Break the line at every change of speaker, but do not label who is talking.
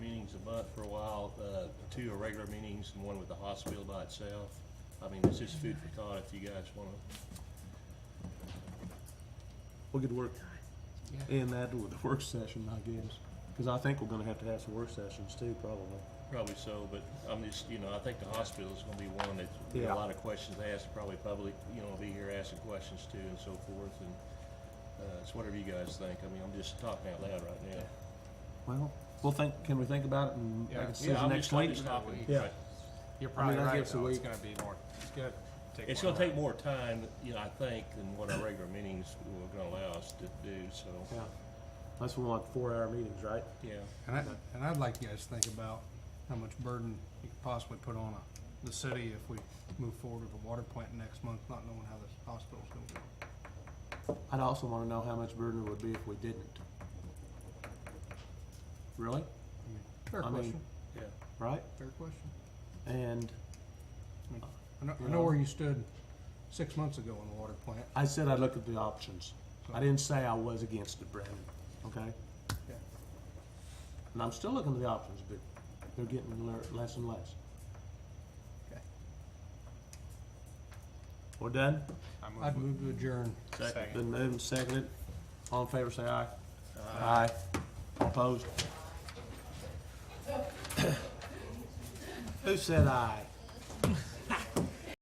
month for a while, uh, two irregular meetings and one with the hospital by itself. I mean, it's just food for thought if you guys wanna,
We could work
Yeah.
in that with the work session, I guess, because I think we're gonna have to have some work sessions too, probably.
probably so, but I'm just, you know, I think the hospital's gonna be one that, there's
Yeah.
a lot of questions asked, probably public, you know, will be here asking questions too and so forth, and, uh, it's whatever you guys think. I mean, I'm just talking out loud right now.
Well, we'll think, can we think about it and
Yeah.
make a
Yeah,
decision
I'm
next
just- I'm
week?
just talking.
Yeah.
Right.
You're probably
that
right,
gives a
though. It's
week.
gonna be more, it's gonna take.
It's
more
gonna take
time.
more time, you know, I think, than what our regular meetings were gonna allow us to do, so,
Yeah. Unless we want four-hour meetings, right?
yeah.
And I, and I'd like you guys to think about how much burden you could possibly put on a, the city if we move forward with the water plant next month, not knowing how this hospital's gonna go.
I'd also wanna know how much burden it would be if we didn't. Really?
I mean, Fair
I mean-
question,
Yeah,
Right?
fair question.
And
I know,
You
I know
know.
where you stood six months ago on the water plant.
I said I'd look at the options. I didn't say I was against it, Brandon, okay?
Yeah.
And I'm still looking at the options, but they're getting le- less and less.
Okay.
We're done?
I
I'd
move.
move to adjourn.
Second.
Been moved and seconded. All in favor, say aye. Aye. All Opposed? Who said aye?